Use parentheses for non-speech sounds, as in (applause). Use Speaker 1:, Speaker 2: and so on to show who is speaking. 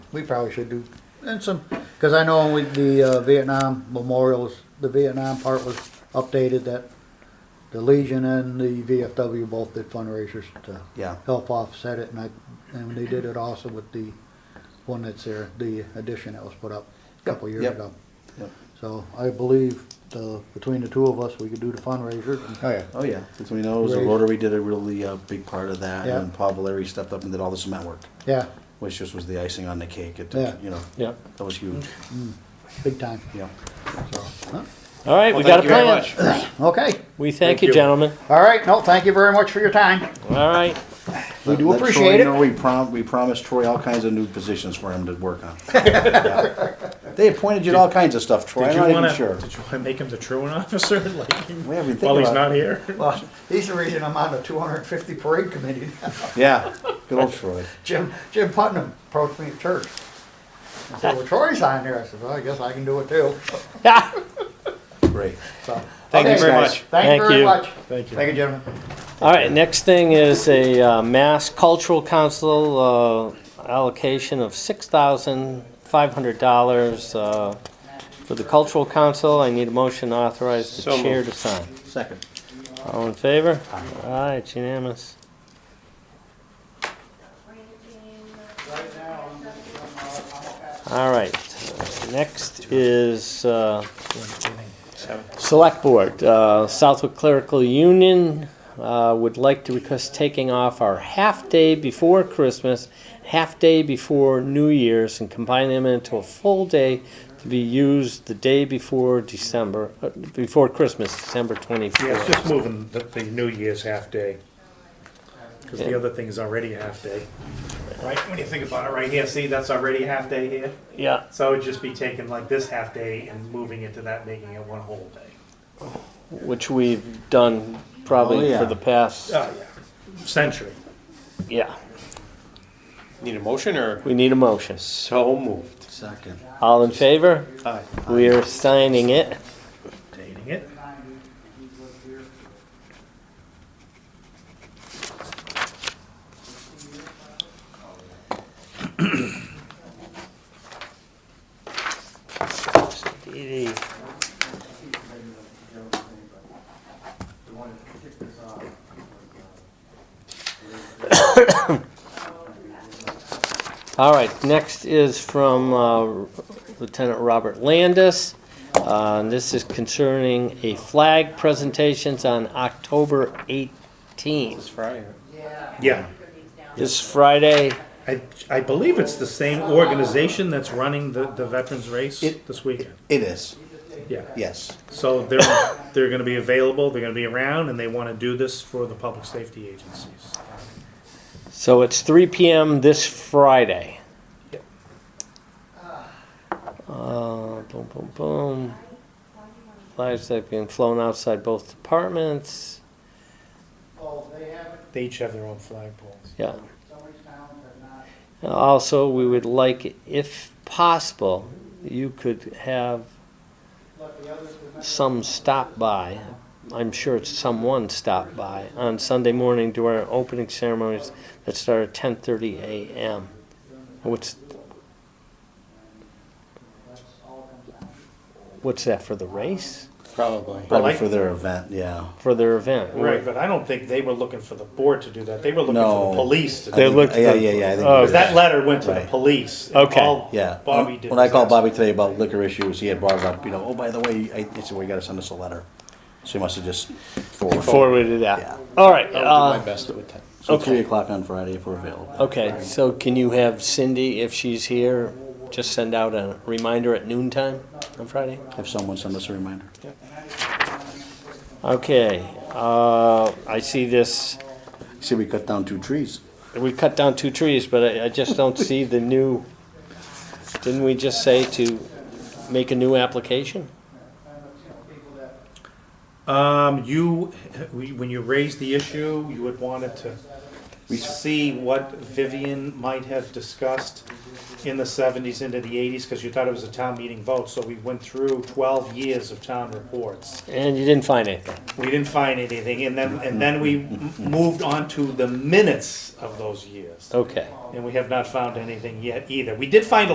Speaker 1: we probably should do, and some, because I know with the uh, Vietnam memorials, the Vietnam part was updated that the Legion and the VFW both did fundraisers to
Speaker 2: Yeah.
Speaker 1: help offset it, and I, and they did it also with the one that's there, the addition that was put up a couple years
Speaker 2: yep.
Speaker 1: ago.
Speaker 2: Yep.
Speaker 1: So I believe the, between the two of us, we could do the fundraisers. and-
Speaker 3: Oh, yeah.
Speaker 2: Oh yeah, since we know it was a
Speaker 1: Right.
Speaker 2: Rotary did a really uh, big part of that,
Speaker 1: Yeah.
Speaker 2: and Paul Valeri stepped up and did all the cement work,
Speaker 1: Yeah,
Speaker 2: which just was the icing on the cake. It
Speaker 1: Yeah.
Speaker 2: you know
Speaker 3: Yeah.
Speaker 2: that was huge.
Speaker 1: big time,
Speaker 2: Yeah.
Speaker 1: so, huh?
Speaker 3: All right, we
Speaker 4: Well,
Speaker 3: got a
Speaker 4: thank you very
Speaker 3: plan.
Speaker 4: much.
Speaker 1: okay.
Speaker 3: We thank
Speaker 4: Thank
Speaker 3: you,
Speaker 4: you.
Speaker 3: gentlemen.
Speaker 1: All right, no, thank you very much for your time.
Speaker 3: All right.
Speaker 1: We do
Speaker 2: Let Troy
Speaker 1: appreciate it.
Speaker 2: know we prom we promised Troy all kinds of new positions for him to work on. (laughs) Yeah. They appointed you to all kinds of stuff, Troy.
Speaker 4: Did
Speaker 2: I'm not
Speaker 4: you wanna,
Speaker 2: even sure.
Speaker 4: Did you want to make him the truant (laughs) officer? Like,
Speaker 2: We haven't been
Speaker 4: while
Speaker 2: thinking
Speaker 4: he's
Speaker 2: about
Speaker 4: not here?
Speaker 1: Well, he's the reason I'm on the 250 parade committee.
Speaker 2: Yeah, good old Troy.
Speaker 1: Jim Jim Putnam approached me at church. I said, "Well, Troy's on there." I said, "Well, I guess I can do it too."
Speaker 2: Great.
Speaker 1: So,
Speaker 4: Thank you
Speaker 1: okay,
Speaker 4: very
Speaker 1: guys.
Speaker 4: much.
Speaker 1: Thank,
Speaker 3: Thank
Speaker 1: you very
Speaker 3: you.
Speaker 1: much.
Speaker 4: Thank you.
Speaker 1: Thank you, gentlemen.
Speaker 3: All right, next thing is a uh, Mass Cultural Council uh, allocation of $6,500 uh, for the Cultural Council. I need a motion to authorize the
Speaker 4: So
Speaker 3: chair
Speaker 4: moved.
Speaker 3: to sign.
Speaker 2: Second.
Speaker 3: All in favor? Aye, it's unanimous. All right, uh, next is uh, Select Board. Uh, Southwick Clerical Union uh, would like to request taking off our half-day before Christmas, half-day before New Year's, and combine them into a full day to be used the day before December, uh, before Christmas, December 24th.
Speaker 4: Yeah, it's just moving the, the New Year's half day. Because the
Speaker 3: Yeah.
Speaker 4: other thing is already half day. Right? When you think about it right here, see, that's already half day here.
Speaker 3: Yeah,
Speaker 4: So I would just be taking like this half day and moving it to that, making it one whole day.
Speaker 3: which we've done probably
Speaker 2: Oh, yeah.
Speaker 3: for the past.
Speaker 4: Oh, yeah. Century.
Speaker 3: Yeah,
Speaker 5: Need a motion or?
Speaker 3: we need a motion.
Speaker 5: So moved.
Speaker 2: Second.
Speaker 3: All in favor?
Speaker 5: Aye.
Speaker 3: We are signing it.
Speaker 4: Dating it.
Speaker 3: All right, next is from uh, Lieutenant Robert Landis. Uh, This is concerning a flag presentations on October 18th.
Speaker 5: It's Friday.
Speaker 4: Yeah.
Speaker 3: This Friday,
Speaker 4: I, I believe it's the same organization that's running the, the veterans race
Speaker 2: It-
Speaker 4: this weekend.
Speaker 2: It is.
Speaker 4: Yeah.
Speaker 2: Yes.
Speaker 4: So they're (coughs) they're going to be available. They're going to be around, and they want to do this for the public safety agencies.
Speaker 3: so it's 3 PM this Friday.
Speaker 4: Yep.
Speaker 3: Uh, Boom, boom, boom. Flags that have been flown outside both departments.
Speaker 4: They each have their own flagpoles.
Speaker 3: Yeah. Also, we would like, if possible, you could have some stop by, I'm sure it's someone stop by, on Sunday morning during our opening ceremonies that start at ten thirty AM. What's, what's that, for the race?
Speaker 5: Probably.
Speaker 2: Probably
Speaker 4: I-
Speaker 2: for their event, yeah.
Speaker 3: For their event?
Speaker 4: Right, but I don't think they were looking for the board to do that. They were looking for
Speaker 2: No.
Speaker 4: the police to do
Speaker 3: They
Speaker 4: that.
Speaker 2: think-
Speaker 3: looked
Speaker 2: yeah,
Speaker 3: for-
Speaker 2: yeah, yeah, I think
Speaker 3: Oh,
Speaker 2: it
Speaker 4: 'Cause
Speaker 2: is.
Speaker 4: uh, that letter went to the
Speaker 2: Right.
Speaker 4: police. and
Speaker 3: Okay.
Speaker 4: all
Speaker 2: Yeah.
Speaker 4: Bobby did.
Speaker 2: When I
Speaker 4: was
Speaker 2: called
Speaker 4: ask-
Speaker 2: Bobby today about liquor issues, he had brought up, you know, oh, by the way, I, he said, well, you gotta send us a letter. So he must have just forwarded.
Speaker 3: Forwarded that.
Speaker 2: Yeah.
Speaker 3: All right,
Speaker 5: I'll do
Speaker 3: uh,
Speaker 5: my best to attend.
Speaker 2: So
Speaker 3: Okay.
Speaker 2: three o'clock on Friday if we're available.
Speaker 3: Okay, so can you have Cindy, if she's here, just send out a reminder at noon time on Friday?
Speaker 2: Have someone send us a reminder.
Speaker 3: Okay, uh, I see this,
Speaker 2: See, we cut down two trees.
Speaker 3: we cut down two trees, but I, I just don't (laughs) see the new, didn't we just say to make a new application?
Speaker 4: Um, you, when you raised the issue, you had wanted to see what Vivian might have discussed in the seventies into the eighties, because you thought it was a town meeting vote, so we went through twelve years of town reports.
Speaker 3: And you didn't find anything.
Speaker 4: We didn't find anything, and then, and then we m- moved on to the minutes of those years.
Speaker 3: Okay.
Speaker 4: And we have not found anything yet either. We did find a